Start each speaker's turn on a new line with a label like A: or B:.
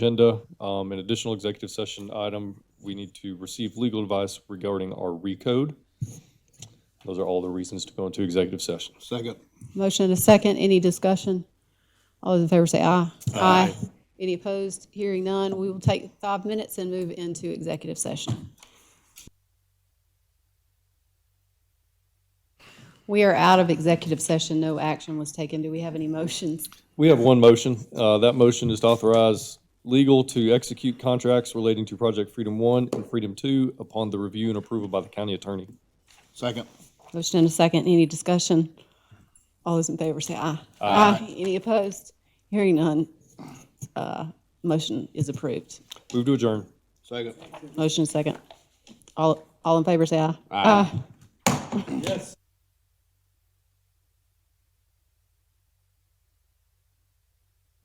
A: agenda. Um, an additional executive session item, we need to receive legal advice regarding our recode. Those are all the reasons to go into executive session.
B: Second.
C: Motion and a second. Any discussion? All those in favor say aye. Aye. Any opposed? Hearing none. We will take five minutes and move into executive session. We are out of executive session. No action was taken. Do we have any motions?
A: We have one motion. Uh, that motion is to authorize legal to execute contracts relating to Project Freedom One and Freedom Two upon the review and approval by the county attorney.
B: Second.
C: Motion and a second. Any discussion? All those in favor say aye. Aye. Any opposed? Hearing none. Uh, Motion is approved.
A: Move to adjourn.
B: Second.
C: Motion second. All, all in favor, say aye. Aye.
A: Yes.